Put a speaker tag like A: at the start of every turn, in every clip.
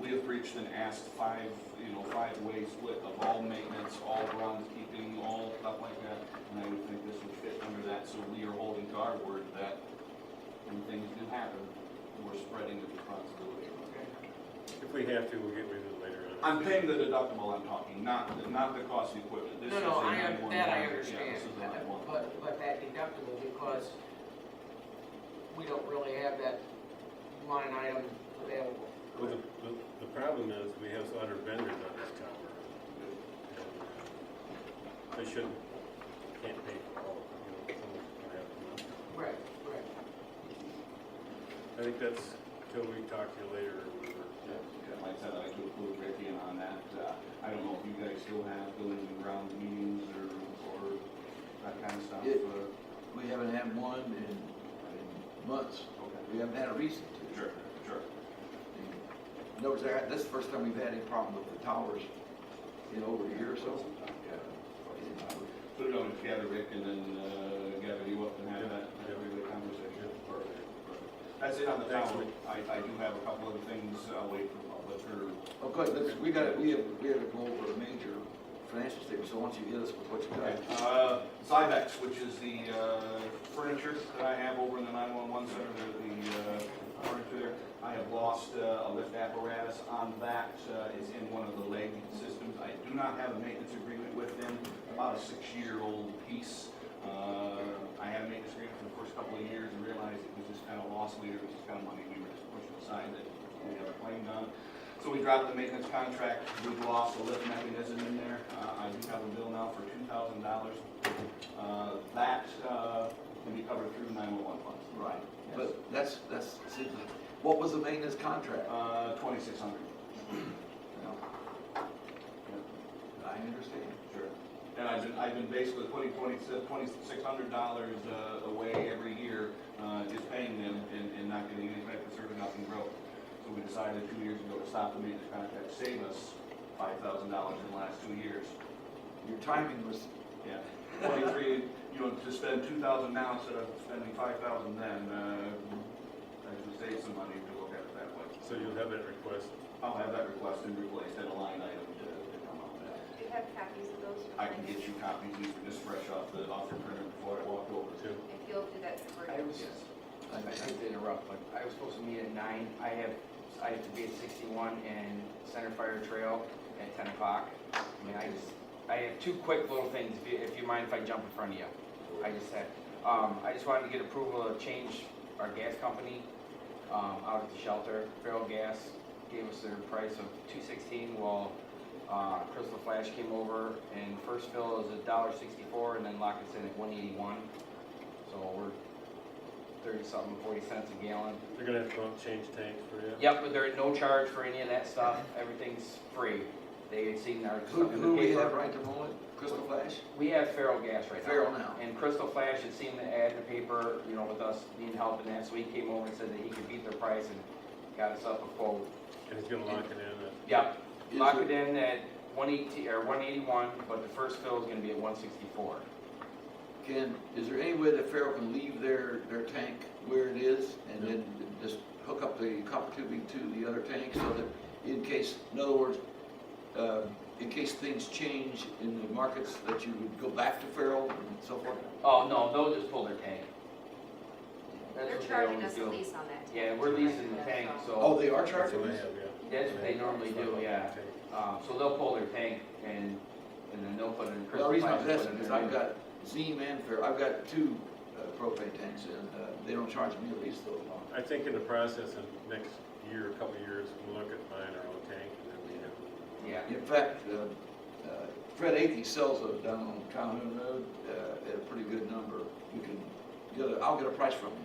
A: Leah Breach then asked five, you know, five ways split of all maintenance, all groundskeeping, all stuff like that. And I would think this would fit under that, so we are holding to our word that when things do happen, we're spreading the responsibility.
B: If we have to, we'll get rid of it later on.
A: I'm paying the deductible I'm talking, not, the- not the cost of equipment. This
C: No,
A: is
C: no,
A: a
C: I, un-
A: 911.
C: that I
A: Yeah,
C: understand,
A: This is a
C: that-
A: 911.
C: but, but that deductible, because we don't really have that line item available.
B: Well, the, the- the problem is, we have other vendors on this tower. They shouldn't, can't pay for all, of it, you know, someone's gonna have to.
C: Right, right.
B: I think that's till we talk to you later or whatever.
A: Yeah, Like I said, I do include Ricky in on that. Uh, I don't know if you guys still have buildings and grounds meetings or, or that kind of stuff.
D: Yeah.
A: uh,
D: We haven't had one in, in months.
A: Okay.
D: We haven't had a reason to.
A: Sure, sure.
D: Notice that, this is the first time we've had any problem with the towers in over a year or so. uh,
A: Put it on together, Rick, and then, uh, gather you up and have that, have a good conversation. Perfect. perfect. That's it on the town.
B: Excellent.
A: I, I do have a couple other things, I'll wait for public or
D: Oh, good, let's, we got, we have, we have to go over a major financial statement, so why don't you hit us with what you
A: Okay,
D: got?
A: uh, Zybex, which is the uh, furniture that I have over in the 911 center, the the, uh, furniture there. I have lost uh, a lift apparatus on that, uh, it's in one of the leg systems. I do not have a maintenance agreement with them, about a six-year-old piece. Uh, I had a maintenance agreement for the first couple of years and realized it was just kind of lost leader, it was just kind of money we were just pushing aside that we have a claim on. So we dropped the maintenance contract, we've lost the lift mechanism in there. Uh, I do have a bill now for two thousand dollars. That uh, can be covered through nine-one-one funds.
D: Right, but that's, that's, see, what was the maintenance contract?
A: Uh, twenty-six hundred.
D: Now, I understand.
A: Sure. And I've been, I've been basically putting twenty-six hundred dollars uh, away every year, uh, just paying them and, and not getting any type of service, nothing broke. So we decided two years ago to stop the maintenance contract, save us five thousand dollars in the last two years.
D: Your timing was,
A: Yeah, twenty-three, you know, to spend two thousand now instead of spending five thousand then, uh, I should save some money to look at it that way.
B: So you'll have that request.
A: I'll have that requested replaced and a line item to, to come up with that.
E: Do you have copies of those?
A: I can get you copies, these are just fresh off the, off the printer before I walked over to.
E: If you'll do that for
F: I
E: me.
F: was,
A: Yes.
F: I hate to interrupt, but I was supposed to meet at nine, I have, I have to be at sixty-one and Center Fire Trail at ten o'clock. I mean, I just, I have two quick little things, if you, if you mind if I jump in front of you. I just had, um, I just wanted to get approval to change our gas company, um, out at the shelter. Feral Gas gave us their price of two sixteen, while, uh, Crystal Flash came over and first fill is a dollar sixty-four and then lock us in at one eighty-one. So we're thirty-something, forty cents a gallon.
B: They're gonna have to go out and change tanks for you.
F: Yep, but there is no charge for any of that stuff, everything's free. They had seen our
D: who,
F: stuff in
D: who
F: the
D: we have
F: paper.
D: right to roll it? Crystal Flash?
F: We have feral gas right now.
D: Feral now.
F: And Crystal Flash had seen the ad in the paper, you know, with us needing help and that, so he came over and said that he could beat their price and got us up a quote.
B: And he's gonna lock it in at
F: Yep,
D: Is
F: lock
D: it-
F: it in at one eighty, or one eighty-one, but the first fill is gonna be at one sixty-four.
D: Can, is there any way that Farrell can leave their, their tank where it is and then just hook up the copper tubing to the other tank so that in case, in other words, uh, in case things change in the markets, that you would go back to Farrell and so forth?
F: Oh, no, they'll just pull their tank. That's
E: They're
F: what they
E: charging
F: always
E: us
F: do.
E: a lease on that.
F: Yeah, we're leasing the tank, so.
D: Oh, they are
B: That's
D: charging
B: what they
D: us?
B: have, yeah.
F: That's what they normally do, yeah. Um, so they'll pull their tank and, and then they'll put it in
D: The
F: crystal
D: reason
F: pipes.
D: I'm asking is I've got Zeem and Farrell, I've got two uh, propane tanks and uh, they don't charge me at least though.
B: I think in the process of next year, a couple of years, we'll look at buying our own tank and then we have.
F: Yeah,
D: In fact, uh, uh, Fred Athey sells those down on Calhoun Road uh, at a pretty good number. You can get a, I'll get a price from him.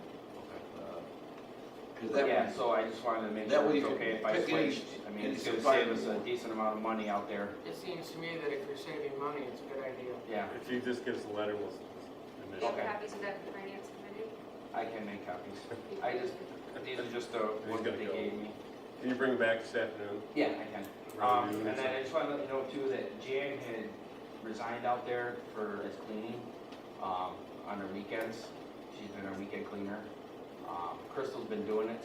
D: Because that
F: yeah,
D: one,
F: so I just wanted to make
D: That
F: sure
D: way
F: it's
D: you can
F: okay if I
D: pick any-
F: switched. I mean,
D: any
F: it's gonna
D: supplier
F: save us
D: you
F: a
D: want.
F: decent amount of money out there,
C: It seems to me that if you're saving money, it's a good idea.
F: yeah.
B: If you just give us a letter, we'll.
E: Do
B: we'll
E: you have
F: Okay.
E: copies of that for finance committee?
F: I can make copies. I just, these are just the
B: He's
F: ones that
B: gotta
F: they
B: go.
F: gave me.
B: Can you bring it back this afternoon?
F: Yeah, I can. Um, and then I just want to let you know too that Jan had resigned out there for as cleaning, um, on her weekends. She's been our weekend cleaner. Um, Crystal's been doing it,